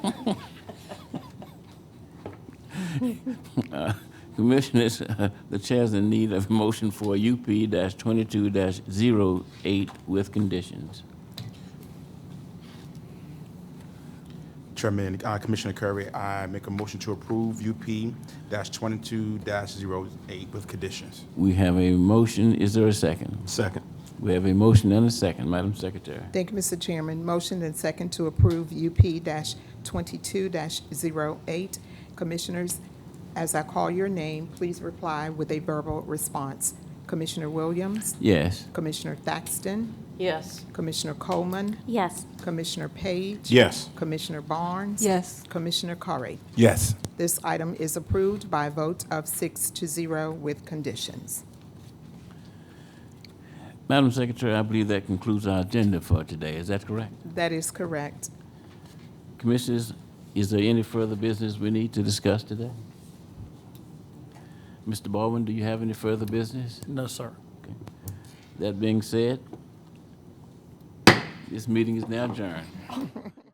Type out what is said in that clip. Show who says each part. Speaker 1: Uh, Commissioners, uh, the chair's in need of a motion for UP-22-08 with conditions.
Speaker 2: Chairman, uh, Commissioner Curry, I make a motion to approve UP twenty-two 8 with conditions.
Speaker 1: We have a motion, is there a second?
Speaker 2: Second.
Speaker 1: We have a motion and a second, Madam Secretary.
Speaker 3: Thank you, Mr. Chairman. Motion and second to approve UP twenty-two 8 Commissioners, as I call your name, please reply with a verbal response. Commissioner Williams,
Speaker 1: Yes,
Speaker 3: Commissioner Thaxton,
Speaker 4: Yes.
Speaker 3: Commissioner Coleman,
Speaker 4: Yes.
Speaker 3: Commissioner Page.
Speaker 2: Yes.
Speaker 3: Commissioner Barnes.
Speaker 4: Yes.
Speaker 3: Commissioner Curry.
Speaker 2: Yes.
Speaker 3: This item is approved by a vote of six to zero with conditions.
Speaker 1: Madam Secretary, I believe that concludes our agenda for today, is that correct?
Speaker 3: That is correct.
Speaker 1: Commissioners, is there any further business we need to discuss today? Mr. Baldwin, do you have any further business?
Speaker 5: No, sir.
Speaker 1: That being said, this meeting is now adjourned.